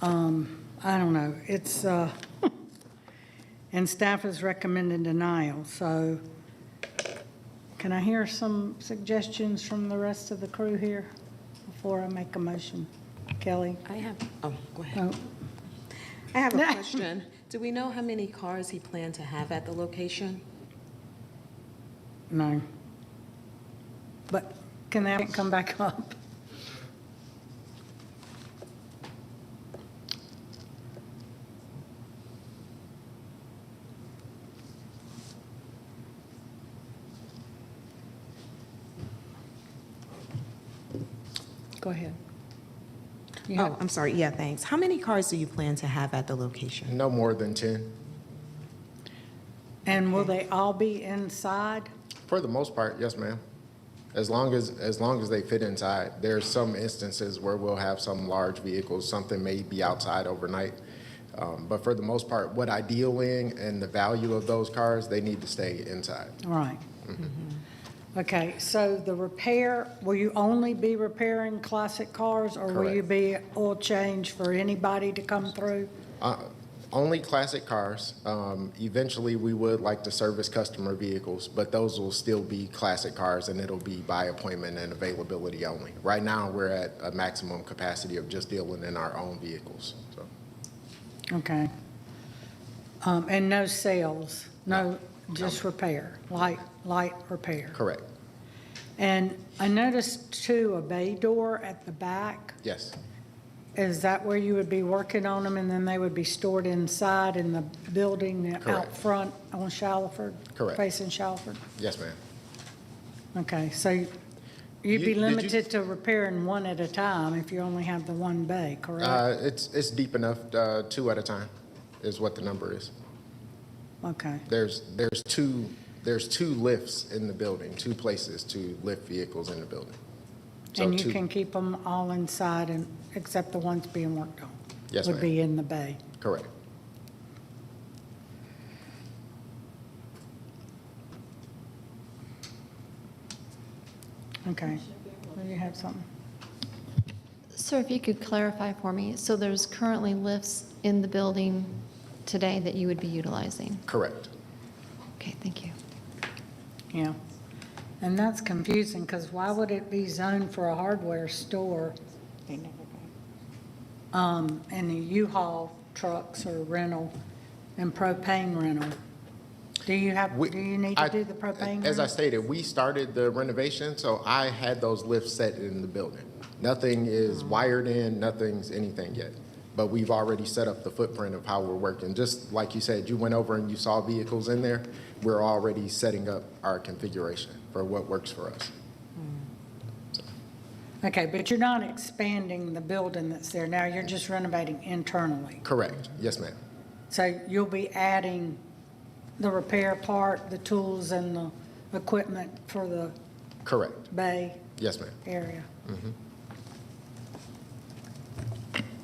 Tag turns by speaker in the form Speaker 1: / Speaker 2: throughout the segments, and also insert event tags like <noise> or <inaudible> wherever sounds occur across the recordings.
Speaker 1: Um, I don't know, it's, uh, <laughs> and staff has recommended denial, so can I hear some suggestions from the rest of the crew here before I make a motion? Kelly?
Speaker 2: I have, oh, go ahead.
Speaker 1: Oh,
Speaker 2: I <laughs> have
Speaker 1: No.
Speaker 2: a question. Do we know how many cars he planned to have at the location?
Speaker 1: No. But can that come back up? Go ahead. You have-
Speaker 2: Oh, I'm sorry, yeah, thanks. How many cars do you plan to have at the location?
Speaker 3: No more than 10.
Speaker 1: And will they all be inside?
Speaker 3: For the most part, yes, ma'am. As long as, as long as they fit inside. There's some instances where we'll have some large vehicles, something may be outside overnight. Um, But for the most part, what I deal in and the value of those cars, they need to stay inside.
Speaker 1: All right.
Speaker 3: Mm-hmm.
Speaker 1: Okay, so the repair, will you only be repairing classic cars? Or will you
Speaker 3: Correct.
Speaker 1: be oil change for anybody to come through?
Speaker 3: Uh, Only classic cars. Um, Eventually, we would like to service customer vehicles, but those will still be classic cars, and it'll be by appointment and availability only. Right now, we're at a maximum capacity of just dealing in our own vehicles, so.
Speaker 1: Okay. Um, And no sales, no, just repair, light, light repair?
Speaker 3: Correct,
Speaker 1: And I noticed too, a bay door at the back.
Speaker 3: yes.
Speaker 1: Is that where you would be working on them and then they would be stored inside in the building out
Speaker 3: Correct.
Speaker 1: front on Shalford?
Speaker 3: Correct.
Speaker 1: Facing Shalford?
Speaker 3: Yes, ma'am.
Speaker 1: Okay, so you'd be
Speaker 3: You- did you-
Speaker 1: limited to repairing one at a time if you only have the one bay, correct?
Speaker 3: Uh, It's, it's deep enough, uh, two at a time is what the number is.
Speaker 1: Okay,
Speaker 3: There's, there's two, there's two lifts in the building, two places to lift vehicles in the building. So
Speaker 1: and you
Speaker 3: two-
Speaker 1: can keep them all inside and, except the ones being worked on?
Speaker 3: Yes,
Speaker 1: Would
Speaker 3: ma'am.
Speaker 1: be in the bay.
Speaker 3: Correct.
Speaker 1: Okay. Do you have something?
Speaker 4: Sir, if you could clarify for me, so there's currently lifts in the building today that you would be utilizing?
Speaker 3: Correct.
Speaker 4: Okay, thank you.
Speaker 1: Yeah. And that's confusing, because why would it be zoned for a hardware store? Um, and the U-Haul trucks or rental and propane rental? Do you have,
Speaker 3: We-
Speaker 1: do you need to
Speaker 3: I-
Speaker 1: do the propane?
Speaker 3: As I
Speaker 1: rental?
Speaker 3: stated, we started the renovation, so I had those lifts set in the building. Nothing
Speaker 1: Mm.
Speaker 3: is wired in, nothing's anything yet. But we've already set up the footprint of how we're working. Just like you said, you went over and you saw vehicles in there. We're already setting up our configuration for what works for us.
Speaker 1: Okay, but you're not expanding the building that's there now, you're just renovating internally.
Speaker 3: Correct. Yes, ma'am.
Speaker 1: So you'll be adding the repair part, the tools and the equipment for the
Speaker 3: Correct.
Speaker 1: bay
Speaker 3: Yes, ma'am.
Speaker 1: area?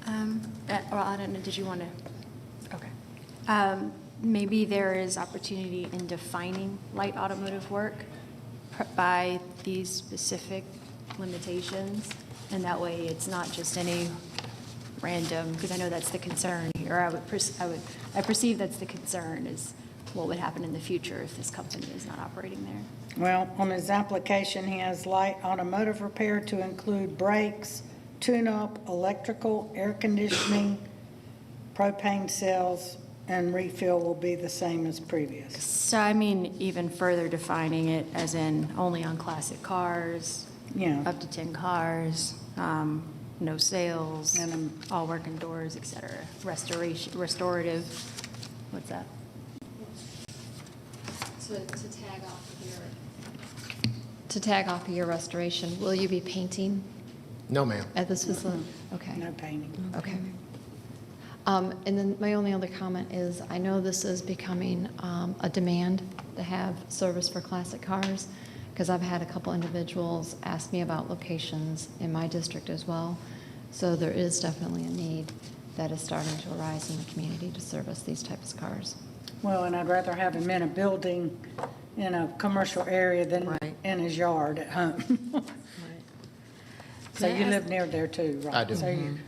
Speaker 5: Um, uh, Well, I don't know, did you want to?
Speaker 1: Okay.
Speaker 5: um, Maybe there is opportunity in defining light automotive work pr- by these specific limitations, and that way it's not just any random, because I know that's the concern here. I would, pers- I would, I perceive that's the concern, is what would happen in the future if this company is not operating there.
Speaker 1: Well, on his application, he has light automotive repair to include brakes, tune-up, electrical, air conditioning, <coughs> propane cells, and refill will be the same as previous.
Speaker 5: So I mean, even further defining it as in only on classic cars.
Speaker 1: Yeah.
Speaker 5: Up to 10 cars, um, no sales,
Speaker 1: Minimum.
Speaker 5: all work indoors, et cetera. Restoration, restorative, what's that?
Speaker 6: to, to tag off here.
Speaker 4: To tag off of your restoration, will you be painting
Speaker 3: No, ma'am.
Speaker 4: at this facility?
Speaker 6: Mm-hmm.
Speaker 4: Okay.
Speaker 1: No painting.
Speaker 4: Okay. Um, And then my only other comment is, I know this is becoming um, a demand to have service for classic cars, because I've had a couple individuals ask me about locations in my district as well. So there is definitely a need that is starting to arise in the community to service these types of cars.
Speaker 1: Well, and I'd rather have him in a building, in a commercial area than
Speaker 2: Right.
Speaker 1: in his yard at home. <laughs> So
Speaker 2: Can I
Speaker 1: you
Speaker 2: ask-
Speaker 1: live near there too, right?
Speaker 3: I do.
Speaker 1: So you-